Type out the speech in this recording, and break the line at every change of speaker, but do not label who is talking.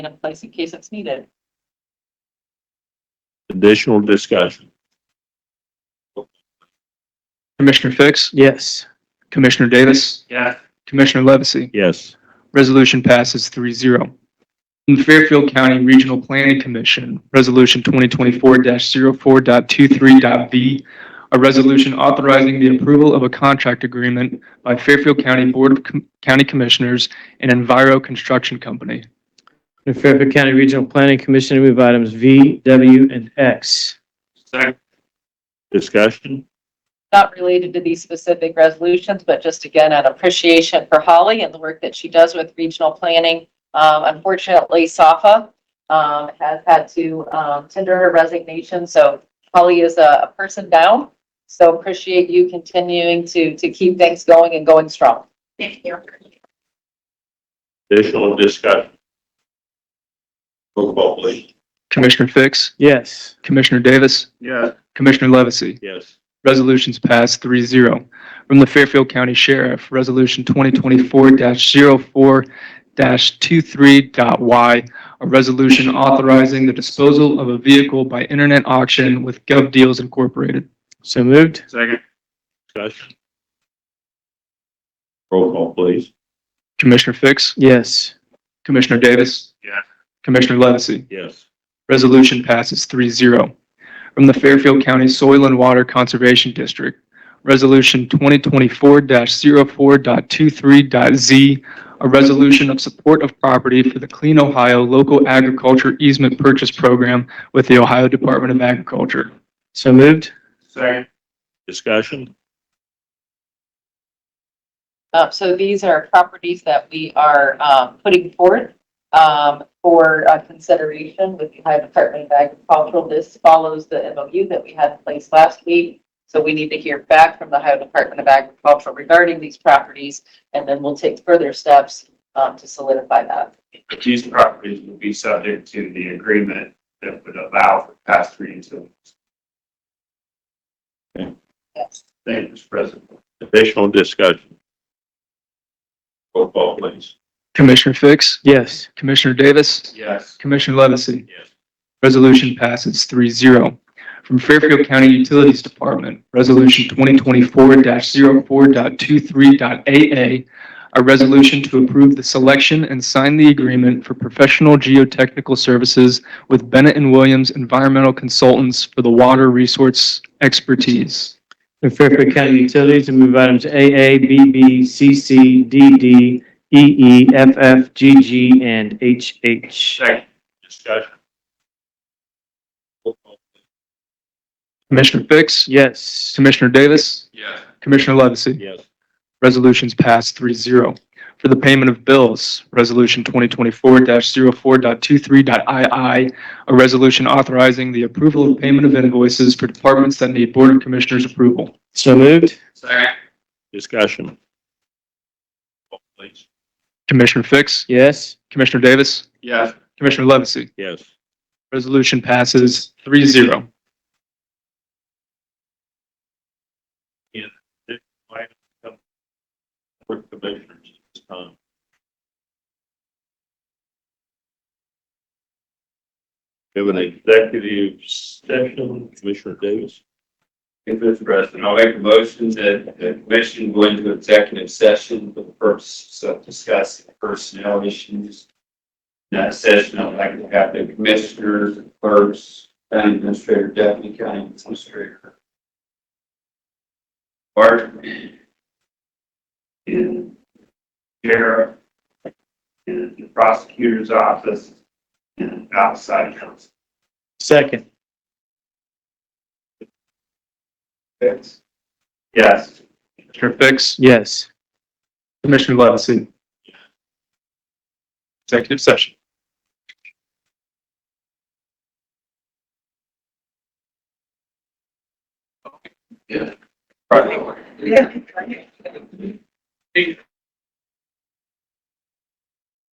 in a place in case it's needed.
Additional discussion?
Commissioner Fix?
Yes.
Commissioner Davis?
Yeah.
Commissioner Levesey?
Yes.
Resolution passes 3-0. From the Fairfield County Regional Planning Commission, Resolution 2024-04.23.v, a resolution authorizing the approval of a contract agreement by Fairfield County Board of Com- County Commissioners and Enviro Construction Company.
The Fairfield County Regional Planning Commission, I move items V, W, and X.
Second. Discussion?
Not related to these specific resolutions, but just again, an appreciation for Holly and the work that she does with regional planning. Um, unfortunately, SAFA, um, has had to, um, tender her resignation, so Holly is a, a person down. So appreciate you continuing to, to keep things going and going strong. Thank you.
Additional discussion? Roll call, please.
Commissioner Fix?
Yes.
Commissioner Davis?
Yes.
Commissioner Levesey?
Yes.
Resolutions passed 3-0. From the Fairfield County Sheriff, Resolution 2024-04-23.y, a resolution authorizing the disposal of a vehicle by internet auction with GovDeals Incorporated.
So moved?
Second. Discussion? Roll call, please.
Commissioner Fix?
Yes.
Commissioner Davis?
Yes.
Commissioner Levesey?
Yes.
Resolution passes 3-0. From the Fairfield County Soil and Water Conservation District, Resolution 2024-04.23.z, a resolution of support of property for the Clean Ohio Local Agriculture Easement Purchase Program with the Ohio Department of Agriculture.
So moved?
Second. Discussion?
Uh, so these are properties that we are, um, putting forth, um, for, uh, consideration with the Ohio Department of Agricultural. This follows the MOU that we had in place last week. So we need to hear back from the Ohio Department of Agriculture regarding these properties, and then we'll take further steps, um, to solidify that.
these properties would be subject to the agreement that would allow for pass-through utilities.
Yes.
Thank you, Mr. President.
Additional discussion? Roll call, please.
Commissioner Fix?
Yes.
Commissioner Davis?
Yes.
Commissioner Levesey?
Yes.
Resolution passes 3-0. From Fairfield County Utilities Department, Resolution 2024-04.23.a.a, a resolution to approve the selection and sign the agreement for professional geotechnical services with Bennett and Williams Environmental Consultants for the water resource expertise.
The Fairfield County Utilities, I move items AA, BB, CC, DD, EE, FF, GG, and HH.
Second.
Discussion? Roll call.
Commissioner Fix?
Yes.
Commissioner Davis?
Yes.
Commissioner Levesey?
Yes.
Resolutions passed 3-0. For the payment of bills, Resolution 2024-04.23.II, a resolution authorizing the approval of payment of invoices for departments that need Board of Commissioners approval.
So moved?
Second.
Discussion? Roll call, Please.
Commissioner Fix?
Yes.
Commissioner Davis?
Yes.
Commissioner Levesey?
Yes.
Resolution passes 3-0.
For commissioners at this time. We have an executive session, Commissioner Davis.
Thank you, Mr. President. I'll make a motion that the commission go into executive session for the purpose of discussing personnel issues. In that session, I'd like to have the commissioners, clerks, county administrator, deputy county administrator. Bart. And sheriff. And the prosecutor's office. And outside counsel.
Second.
Yes. Yes.
Commissioner Fix?
Yes.
Commissioner Levesey? Executive session.
Right.